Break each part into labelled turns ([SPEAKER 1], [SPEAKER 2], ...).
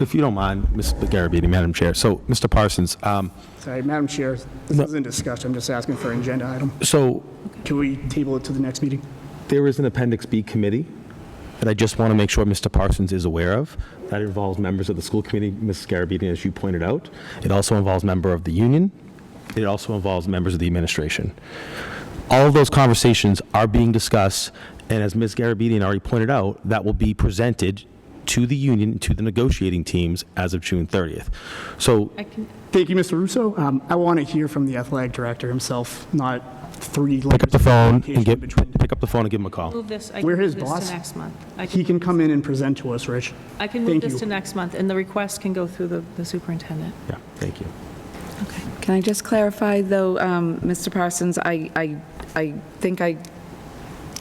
[SPEAKER 1] If you don't mind, Ms. Garabedian, Madam Chair. So, Mr. Parsons, um,
[SPEAKER 2] Sorry, Madam Chair, this isn't discussed, I'm just asking for an agenda item.
[SPEAKER 1] so
[SPEAKER 2] Can we table it to the next meeting?
[SPEAKER 1] there is an Appendix B committee that I just want to make sure Mr. Parsons is aware of. That involves members of the school committee, Ms. Garabedian, as you pointed out. It also involves member of the union. It also involves members of the administration. All of those conversations are being discussed, and as Ms. Garabedian already pointed out, that will be presented to the union, to the negotiating teams as of June 30th. So
[SPEAKER 3] I can,
[SPEAKER 2] Thank you, Mr. Russo. Um, I want to hear from the athletic director himself, not three.
[SPEAKER 1] pick up the phone and get,
[SPEAKER 2] Between.
[SPEAKER 1] pick up the phone and give him a call.
[SPEAKER 3] move this, I
[SPEAKER 2] We're
[SPEAKER 3] can
[SPEAKER 2] his
[SPEAKER 3] move this
[SPEAKER 2] boss.
[SPEAKER 3] to next month. I
[SPEAKER 2] He
[SPEAKER 3] can,
[SPEAKER 2] can come in and present to us, Rich.
[SPEAKER 3] I can
[SPEAKER 2] thank
[SPEAKER 3] move this
[SPEAKER 2] you.
[SPEAKER 3] to next month, and the request can go through the the superintendent.
[SPEAKER 1] Yeah, thank you.
[SPEAKER 3] Okay.
[SPEAKER 4] Can I just clarify, though, um, Mr. Parsons, I, I, I think I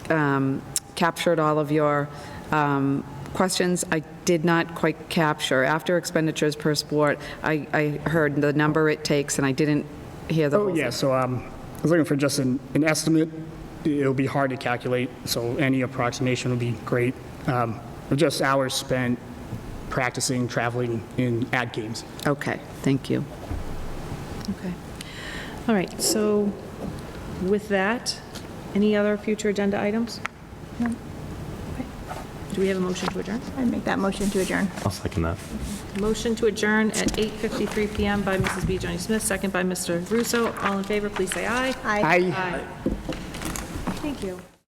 [SPEAKER 4] um, captured all of your um, questions. I did not quite capture, after expenditures per sport, I, I heard the number it takes, and I didn't hear the whole
[SPEAKER 2] Oh, yeah, so um, I was looking for just an, an estimate. It'll be hard to calculate, so any approximation would be great. Um, but Just hours spent practicing, traveling, in ad games.
[SPEAKER 4] Okay, thank you.
[SPEAKER 3] Okay. All right, so with that, any other future agenda items? No. Okay. Do we have a motion to adjourn?
[SPEAKER 5] I'd make that motion to adjourn.
[SPEAKER 1] I'll second that.
[SPEAKER 3] Motion to adjourn at 8:53 PM by Mrs. B. Joni Smith, uh, second by Mr. Russo. All in favor, please say aye.
[SPEAKER 5] Aye.
[SPEAKER 2] I
[SPEAKER 3] Aye. Thank you.